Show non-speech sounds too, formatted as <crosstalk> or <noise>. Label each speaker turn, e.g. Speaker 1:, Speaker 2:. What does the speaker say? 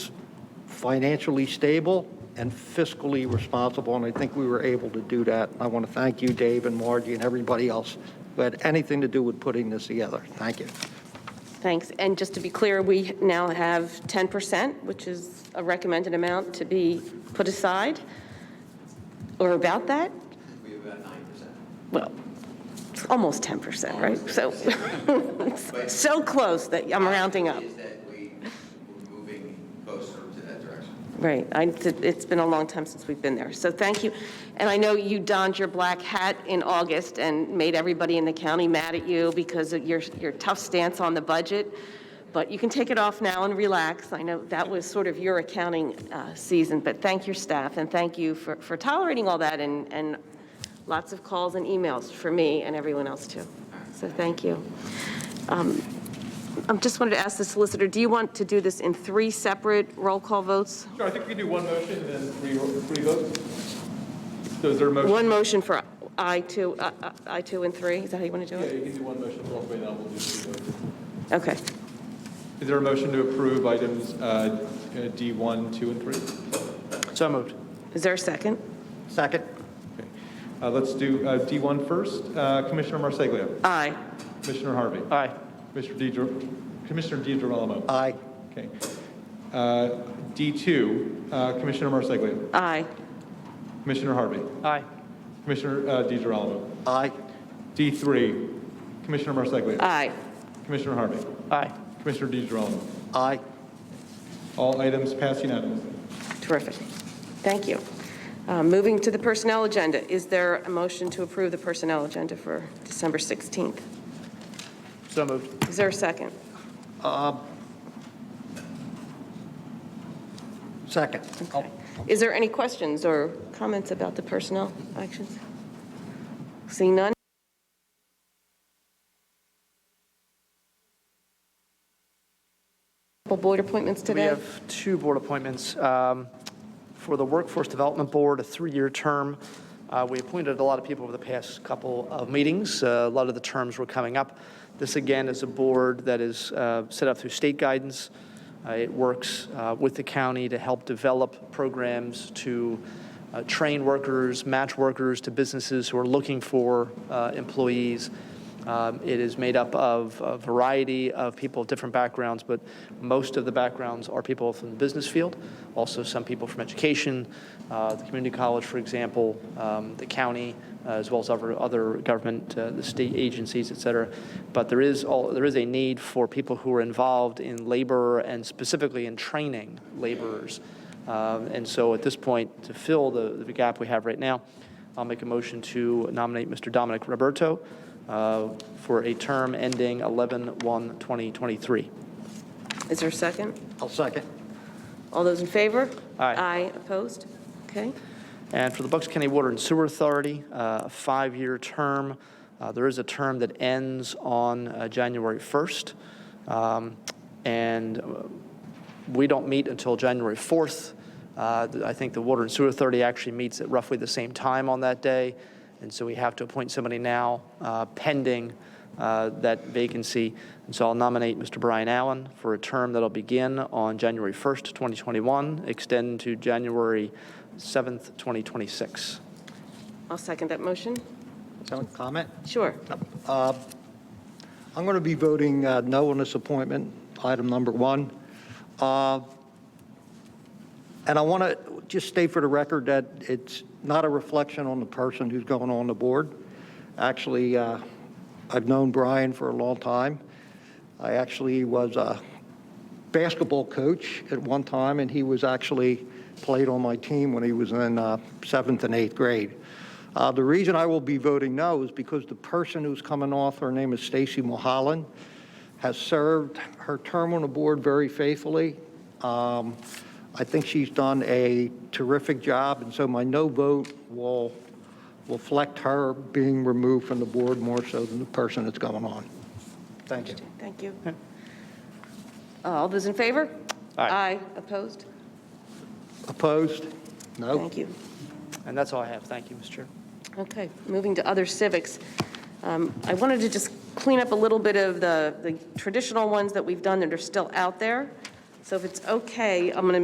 Speaker 1: financially stable and fiscally responsible, and I think we were able to do that. I want to thank you, Dave and Margie, and everybody else who had anything to do with putting this together. Thank you.
Speaker 2: Thanks. And just to be clear, we now have 10%, which is a recommended amount to be put aside, or about that?
Speaker 3: We have about nine percent.
Speaker 2: Well, it's almost 10%, right? So, <laughs> so close that I'm rounding up.
Speaker 3: Is that we, we're moving closer to that direction.
Speaker 2: Right. I- It's been a long time since we've been there. So thank you. And I know you donned your black hat in August and made everybody in the county mad at you because of your, your tough stance on the budget. But you can take it off now and relax. I know that was sort of your accounting uh, season, but thank your staff and thank you for, for tolerating all that and, and lots of calls and emails for me and everyone else too. So thank you. Um, I just wanted to ask the solicitor, do you want to do this in three separate roll call votes?
Speaker 4: Sure, I think we do one motion and then three, three votes. So is there a motion?
Speaker 2: One motion for I-2, uh, uh, I-2 and 3, is that how you want to do
Speaker 4: Yeah,
Speaker 2: it?
Speaker 4: you can do one motion for all three, and then we'll do three votes.
Speaker 2: Okay.
Speaker 4: Is there a motion to approve items uh, uh, D1, 2, and 3?
Speaker 1: So moved.
Speaker 2: Is there a second?
Speaker 1: Second?
Speaker 4: Okay. Uh, Let's do uh, D1 first. Uh, Commissioner Marsaglia.
Speaker 2: Aye.
Speaker 4: Commissioner Harvey.
Speaker 1: Aye.
Speaker 4: Commissioner Di Gir- Commissioner DiGirolamo.
Speaker 1: Aye.
Speaker 4: Okay. Uh, D2, uh, Commissioner Marsaglia.
Speaker 2: Aye.
Speaker 4: Commissioner Harvey.
Speaker 1: Aye.
Speaker 4: Commissioner uh, DiGirolamo.
Speaker 1: Aye.
Speaker 4: D3, Commissioner Marsaglia.
Speaker 2: Aye.
Speaker 4: Commissioner Harvey.
Speaker 1: Aye.
Speaker 4: Commissioner DiGirolamo.
Speaker 1: Aye.
Speaker 4: All items passed unanimously.
Speaker 2: Terrific. Thank you. Uh, Moving to the personnel agenda, is there a motion to approve the personnel agenda for December 16th?
Speaker 1: So moved.
Speaker 2: Is there a second?
Speaker 1: Second.
Speaker 2: Okay. Is there any questions or comments about the personnel actions? Seeing none? Couple Board appointments
Speaker 5: We
Speaker 2: today?
Speaker 5: have two board appointments. Um, For the Workforce Development Board, a three-year term. Uh, We appointed a lot of people over the past couple of meetings. Uh, A lot of the terms were coming up. This, again, is a board that is uh, set up through state guidance. Uh, It works uh, with the county to help develop programs to uh, train workers, match workers to businesses who are looking for uh, employees. Um, It is made up of a variety of people of different backgrounds, but most of the backgrounds are people from the business field, also some people from education, uh, the community college, for example, um, the county, uh, as well as other, other government, uh, the state agencies, et cetera. But there is, all- there is a need for people who are involved in labor and specifically in training laborers. Um, And so at this point, to fill the the gap we have right now, I'll make a motion to nominate Mr. Dominic Roberto uh, for a term ending 11/1/2023.
Speaker 2: Is there a second?
Speaker 1: I'll second.
Speaker 2: All those in favor?
Speaker 5: Aye.
Speaker 2: Aye, opposed? Okay.
Speaker 5: And for the Bucks County Water and Sewer Authority, uh, a five-year term. Uh, There is a term that ends on uh, January 1st. Um, And uh, we don't meet until January 4th. Uh, th- I think the Water and Sewer Authority actually meets at roughly the same time on that day. And so we have to appoint somebody now uh, pending uh, that vacancy. And so I'll nominate Mr. Brian Allen for a term that'll begin on January 1st, 2021, extend to January 7th, 2026.
Speaker 2: I'll second that motion.
Speaker 1: Don't comment?
Speaker 2: Sure.
Speaker 1: I'm going to be voting uh, no on this appointment, item number one. Uh, And I want to just state for the record that it's not a reflection on the person who's going on the board. Actually, uh, I've known Brian for a long time. I actually was a basketball coach at one time, and he was actually, played on my team when he was in uh, seventh and eighth grade. Uh, The reason I will be voting no is because the person who's coming off, her name is Stacy Mulholland, has served her term on the board very faithfully. Um, I think she's done a terrific job, and so my no vote will will reflect her being removed from the board more so than the person that's going on. Thank you.
Speaker 2: Thank you. Uh, All those in favor?
Speaker 5: Aye.
Speaker 2: Aye, opposed?
Speaker 1: Opposed? No?
Speaker 2: Thank you.
Speaker 5: And that's all I have. Thank you, Mr. Chair.
Speaker 2: Okay, moving to other civics. Um, I wanted to just clean up a little bit of the the traditional ones that we've done that are still out there. So if it's okay, I'm going to